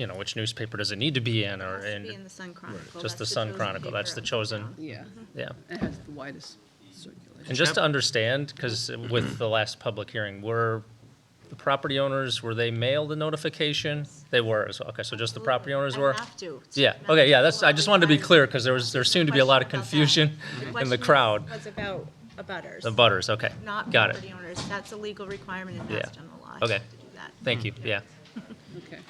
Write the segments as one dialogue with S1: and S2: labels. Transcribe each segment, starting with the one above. S1: you know, which newspaper does it need to be in or
S2: Has to be in
S1: in,
S2: the Sun Chronicle.
S1: just
S2: That's
S1: the Sun
S2: chosen
S1: Chronicle, that's
S2: paper
S1: the
S2: of
S1: chosen,
S2: town.
S3: Yeah,
S1: yeah.
S3: it has the widest circulation.
S1: And just to understand, because with the last public hearing, were the property owners, were they mailed the notification? They were, as well. okay, so just the property owners
S2: I
S1: were?
S2: have to. It's
S1: Yeah,
S2: not-
S1: okay, yeah, that's,
S2: well,
S1: I just wanted to be
S2: I'm-
S1: clear, because there was, there
S2: There's
S1: seemed to
S2: no
S1: be a lot of
S2: question about that.
S1: confusion in
S2: question
S1: the
S2: was-
S1: crowd.
S2: Was about abutters.
S1: The butters, okay,
S2: Not
S1: got it,
S2: property owners. That's a legal requirement and
S1: Yeah.
S2: passed on the law. You
S1: Okay.
S2: have to do that.
S1: thank you, yeah.
S3: Okay.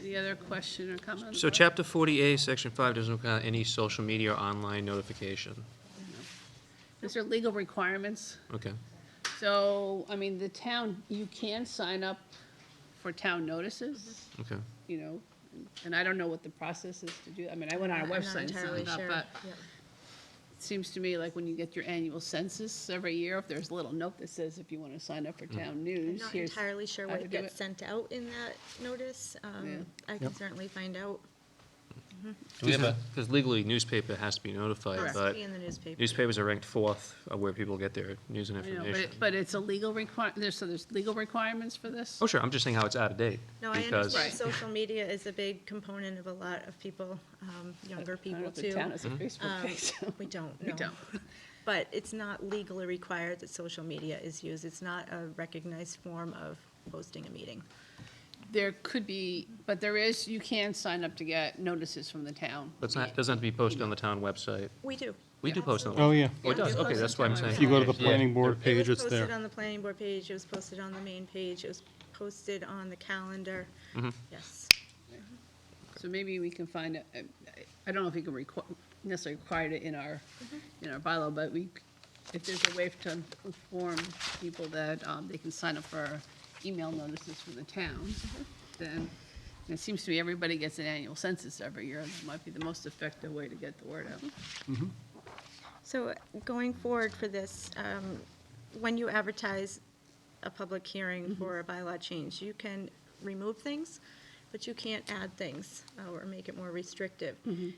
S3: Any other question or comment?
S4: So chapter 40A, section 5 doesn't look at any social media or online notification.
S3: These are legal requirements.
S4: Okay,
S3: So, I mean, the town, you can sign up for town notices,
S4: okay.
S3: you know, and I don't know what the process is to do. I mean, I went on our
S2: I'm not
S3: website and
S2: entirely
S3: signed up,
S2: sure.
S3: but
S2: Yeah.
S3: it seems to me like when you get your annual census every year, if there's a little note that says if you want to sign up for
S4: Mm-hmm.
S3: town
S2: I'm
S3: news,
S2: not
S3: here's.
S2: entirely sure
S3: how to
S2: what
S3: do
S2: gets
S3: it.
S2: sent out in that notice. Um, I can certainly find out.
S1: Do we have a,
S4: Because legally newspaper has to be notified,
S2: Has to
S4: but
S2: be in the newspaper.
S4: newspapers are ranked fourth of where people get their news and
S3: I know, but,
S4: information.
S3: it- but it's a legal require, there's, so there's legal requirements for this?
S4: Oh, sure, I'm just saying how it's out of date.
S2: No, I
S4: because-
S2: understand
S3: Right.
S2: social media is a big component of a lot of people, um, younger
S3: I don't know
S2: people
S3: if the
S2: too.
S3: town has a Facebook
S4: Mm-hmm.
S2: Um,
S3: page, so.
S2: We don't,
S3: We
S2: no.
S3: don't.
S2: But it's not legally required that social media is used. It's not a recognized form of hosting a meeting.
S3: There could be, but there is, you can sign up to get notices from the town.
S4: But it's not, doesn't have to be posted on the town website.
S2: We do.
S4: We do post on the.
S5: Oh, yeah.
S4: Oh, it does,
S3: Yeah.
S4: okay, that's what I'm saying.
S5: If you go to the
S4: Okay, yeah.
S5: planning board page, it's
S2: It was posted
S5: there.
S2: on the planning board page, it was posted on the main page, it was posted on the calendar.
S4: Mm-hmm.
S2: Yes.
S3: So maybe we can find, a- I- I don't know if we can requ- necessarily require it in our, in our bylaw, but we, if there's a way to inform people that um, they can sign up for email notices from the town, then it seems to me everybody gets an annual census every year, and that might be the most effective way to get the word out.
S2: So going forward for this, um, when you advertise a public hearing for a bylaw change, you can remove things, but you can't add things uh, or make it more restrictive.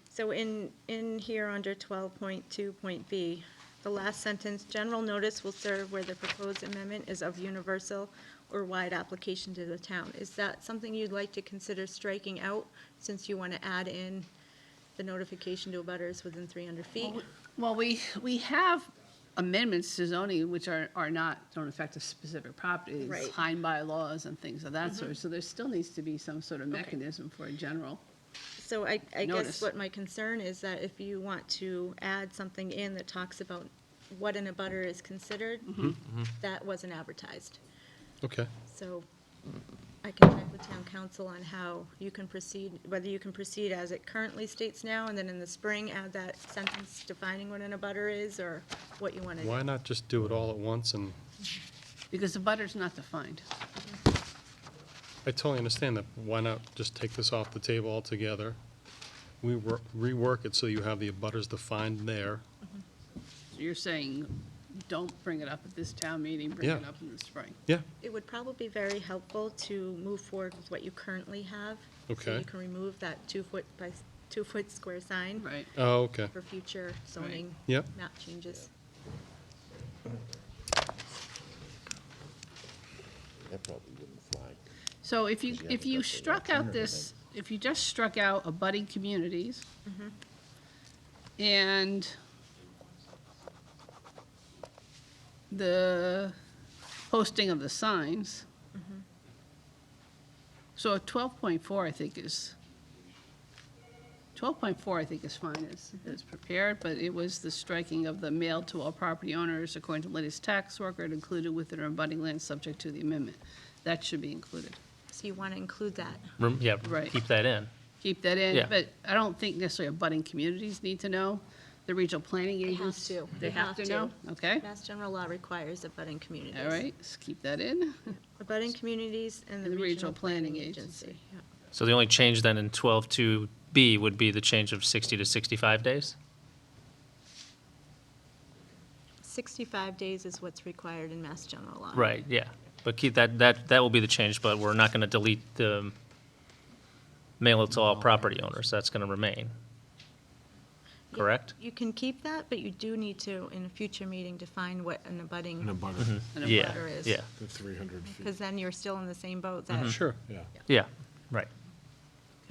S2: So in, in here under 12.2.b, the last sentence, "General notice will serve where the proposed amendment is of universal or wide application to the town." Is that something you'd like to consider striking out, since you want to add in the notification to abutters within 300 feet?
S3: Well, we, we have amendments to zoning which are, are not, don't affect a specific property. It's
S2: Right.
S3: Time bylaws and things of that sort, so there still needs to be some sort of mechanism for a general.
S2: So I, I guess
S3: Notice.
S2: what my concern is that if you want to add something in that talks about what an abutter is considered,
S3: Mm-hmm.
S2: that wasn't advertised.
S5: Okay.
S2: So I can check with town council on how you can proceed, whether you can proceed as it currently states now, and then in the spring add that sentence defining what an abutter is, or what you want to
S5: Why
S2: do.
S5: not just do it all at once? And
S3: Because the butter's not defined.
S5: I totally understand that. Why not just take this off the table altogether? We wor- rework it so you have the abutters defined there.
S3: So You're saying, don't bring it up at this town meeting, bring it
S5: Yeah.
S3: up in the spring.
S5: Yeah,
S2: It would probably be very helpful to move forward with what you currently have. So
S5: Okay.
S2: you can remove that two-foot by, s- two-foot square sign.
S3: Right.
S5: oh, okay.
S2: for future zoning.
S5: Yep.
S2: Map changes.
S6: That probably wouldn't fly.
S3: So if you,
S6: you
S3: if
S6: haven't
S3: you
S6: got the
S3: struck out this, if you just struck out abutting communities, and the posting of the signs, so twelve point four, I think, is, twelve point four, I think, is fine, is, is prepared, but it was the striking of the mail to all property owners according to latest tax record included within or abutting land subject to the amendment. That should be included.
S2: So you want to include that.
S1: rem- yeah,
S3: Right.
S1: keep that in.
S3: keep that in,
S1: Yeah.
S3: but I don't think necessarily abutting communities need to know. The regional planning
S2: have
S3: agents.
S2: to. They have to.
S3: know, okay?
S2: Mass general law requires abutting communities.
S3: All right, let's keep that in.
S2: Abutting communities and the regional planning agency. Yeah.
S1: So the only change then in 12.2B would be the change of 60 to 65 days?
S2: Sixty-five days is what's required in mass general law.
S1: Right, yeah. But keep that, that, that will be the change, but we're not going to delete the mail it to all property owners. That's going to remain.
S2: You-
S1: Correct?
S2: You can keep that, but you do need to, in a future meeting, define what an
S6: In a
S2: abutting,
S6: butter,
S3: And a
S1: Yeah,
S3: butter.
S2: is.
S1: yeah,
S6: the 300 feet,
S2: Hmm.
S5: Mm-hmm.
S2: because then you're still in the same boat that.
S5: Sure.
S6: yeah.
S1: yeah, right.